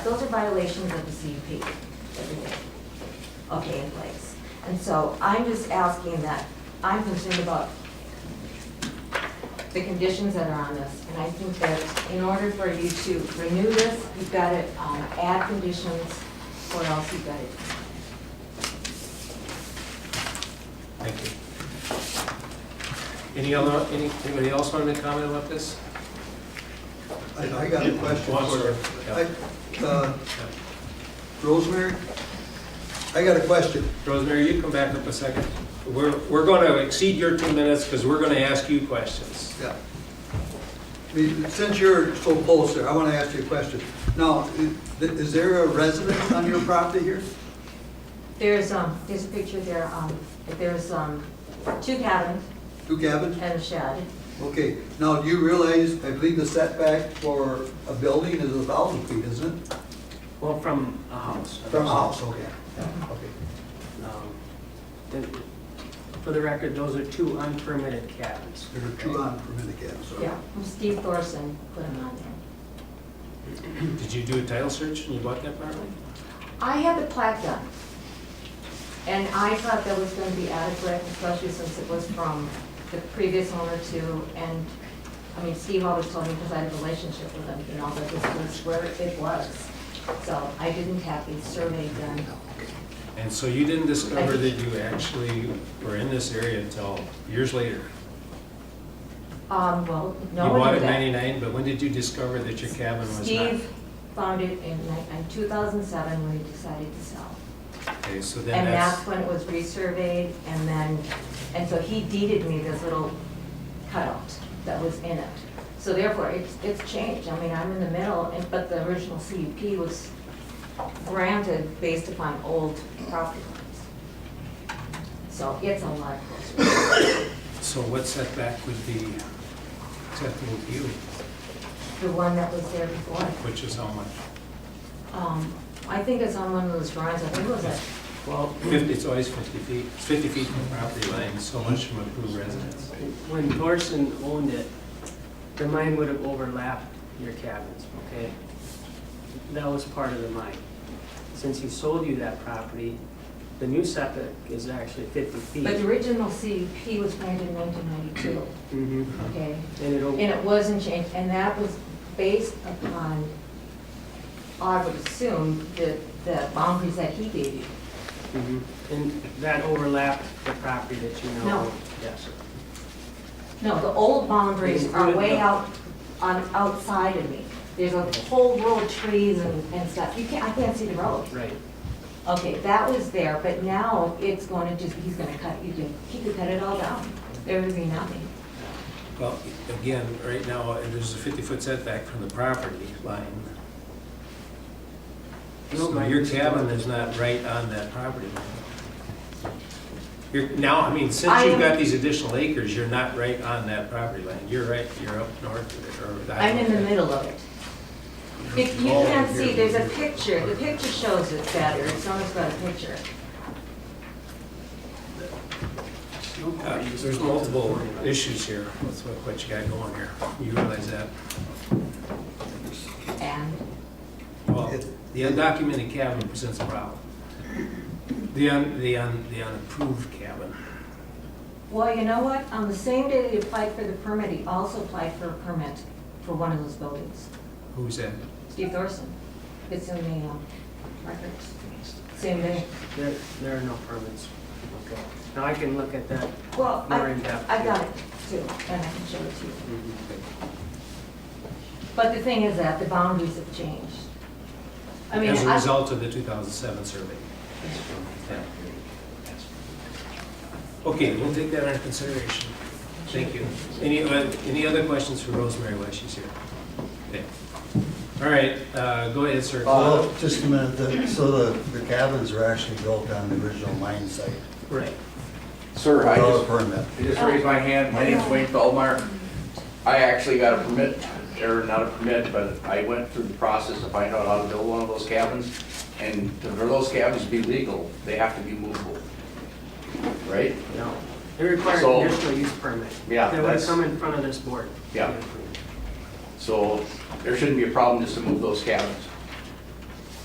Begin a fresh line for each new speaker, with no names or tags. those are violations of the CUP, everything, okay, in place. And so I'm just asking that, I'm concerned about the conditions that are on this, and I think that in order for you to renew this, you've got to um, add conditions, or else you've got to,
Thank you. Any other, any- anybody else want to comment about this?
I I got a question
Go on,
for
sir.
you.
Yeah.
I- uh, Rosemary, I got a question.
Rosemary, you come back up a second. We're, we're going to exceed your two minutes because we're going to ask you questions.
Yeah. I mean, Since you're so close there, I want to ask you a question. Now, i- is there a resident on your property here?
there's, um, there's a picture there, um, there's, um, two cabins
Two cabins?
and a shed.
Okay, now, do you realize, I believe the setback for a building is a thousand feet, isn't it?
Well, from a house.
From a house, okay. Okay.
Um, the- For the record, those are two unpermitted cabins.
There are two unpermitted cabins. okay.
Yeah, Steve Thorson put them on there.
Did you do a title search and you bought that property?
I had the plat done, and I thought that was gonna be adequate, especially since it was from the previous owner too, and, I mean, Steve always told me, because I had a relationship with him, you know, that this was where it was. So I didn't have the survey done.
And so you didn't discover that you actually were in this area until years later?
Um, well,
You
no
bought
one
it
did
in
that.
ninety-nine, but when did you discover that your cabin was not?
Steve found it in, like, in two thousand seven when he decided to sell.
Okay, so then
And that's
that's,
when it was resurveyed, and then, and so he deeded me this little cutout that was in it. So therefore, it's, it's changed, I mean, I'm in the middle, and- but the original CUP was granted based upon old property lines. So it's a lot closer.
so what setback would be acceptable to you,
The one that was there before,
which is how much?
um, I think it's on one of those drawings, I think it was a,
Well,
Fifty, it's always fifty feet, It's fifty feet from property line, so much from approved residence.
when Thorson owned it, the mine would have overlapped your cabins, okay? That was part of the mine. Since he sold you that property, the new septic is actually 50 feet.
but the original CUP was granted in nineteen ninety-two,
Mhm.
okay?
And
And
it, o-
it wasn't changed, and that was based upon, I would assume, the, the boundaries that he gave you.
mhm. and that overlapped the property that you know.
No.
Yes.
No, the old boundaries are way out, on, outside of me. There's a whole row of trees and, and stuff, you can't, I can't see the road.
Right.
Okay, that was there, but now it's gonna just, he's gonna cut, you can, he could cut it all down. There would be nothing.
Well, again, right now, uh, there's a fifty-foot setback from the property line. So your cabin is not right on that property line. You're, now, I mean, since
I
you've
am-
got these additional acres, you're not right on that property line. You're right, you're up north or. the-
I'm in the middle of it. If you
Oh,
can't see,
here.
there's a picture, the picture shows it better, it's almost got a picture.
Uh, There's multiple issues here with what- what you got going here. You realize that?
And
Well, the undocumented cabin presents a problem. The un, the un, the unapproved cabin.
Well, you know what, on the same day that he applied for the permit, he also applied for a permit for one of those buildings,
Who's that?
Steve Thorson. It's in the um, records, same day.
There, there are no permits. Okay. Now I can look at that.
Well, I,
More in depth,
I got
yeah.
it too, and I can show it to you.
Mhm.
Mm-hmm.
But the thing is that the boundaries have changed. I mean,
As a
I-
result of the 2007 survey. Yeah. Okay, we'll take that under consideration. Thank you. Any, uh, any other questions for Rosemary while she's here? Okay. All right, uh, go ahead, sir.
Uh, Just a minute, the- so the the cabins were actually built on the original mine site
Right.
Sir, I
without a
just,
permit.
I just raised my hand. My name's Wayne Feldmeyer. I actually got a permit, or not a permit, but I went through the process to find out how to build one of those cabins. And to- for those cabins to be legal, they have to be movable. Right?
No, they require a
So-
conditional use permit.
Yeah,
They would
that's-
come in front of this board.
Yeah. So there shouldn't be a problem just to move those cabins.